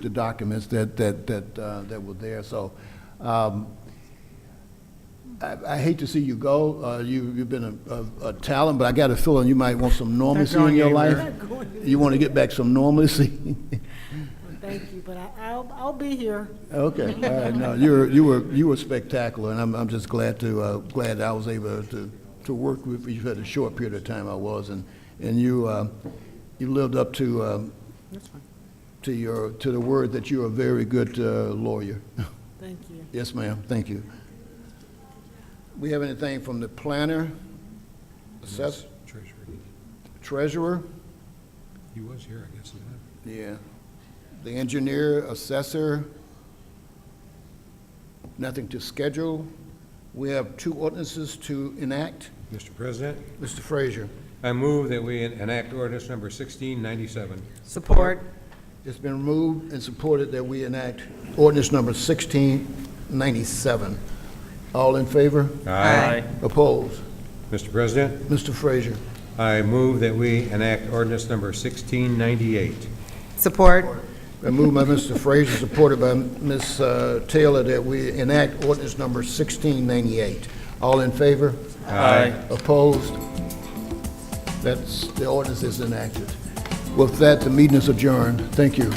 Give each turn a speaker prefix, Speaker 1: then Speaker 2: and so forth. Speaker 1: the documents that, that, that, uh, that were there, so, um, I, I hate to see you go, uh, you, you've been a, a, a talent, but I got a feeling you might want some normalcy in
Speaker 2: going
Speaker 1: your life.
Speaker 2: anywhere.
Speaker 1: You want to get back some normalcy?
Speaker 3: Well, Thank you, but I, I'll, I'll be here.
Speaker 1: Okay, all right, no, you were, you were, you were spectacular, and I'm, I'm just glad to, uh, glad I was able to, to work with you for the short period of time I was, and, and you, uh, you lived up to, um,
Speaker 2: That's fine.
Speaker 1: to your, to the word that you're a very good uh, lawyer.
Speaker 3: Thank you.
Speaker 1: Yes, ma'am, thank you. We have anything from the planner, assess,
Speaker 4: Treasurer.
Speaker 1: treasurer?
Speaker 4: He was here, I guess, isn't
Speaker 1: Yeah. The engineer, assessor, nothing to schedule. We have two ordinances to enact.
Speaker 4: he? Mr. President,
Speaker 1: Mr. Frazier,
Speaker 4: I move that we enact ordinance number 1697.
Speaker 2: Support.
Speaker 1: it's been moved and supported that we enact ordinance number 1697. All in favor?
Speaker 2: Aye.
Speaker 1: Opposed?
Speaker 4: Mr. President,
Speaker 1: Mr. Frazier,
Speaker 4: I move that we enact ordinance number 1698.
Speaker 2: Support.
Speaker 1: been moved by Mr. Frazier, supported by Ms. uh, Taylor, that we enact ordinance number 1698. All in favor?
Speaker 4: Aye.
Speaker 1: Opposed? That's, the ordinance is enacted. With that, the meeting is adjourned. Thank you.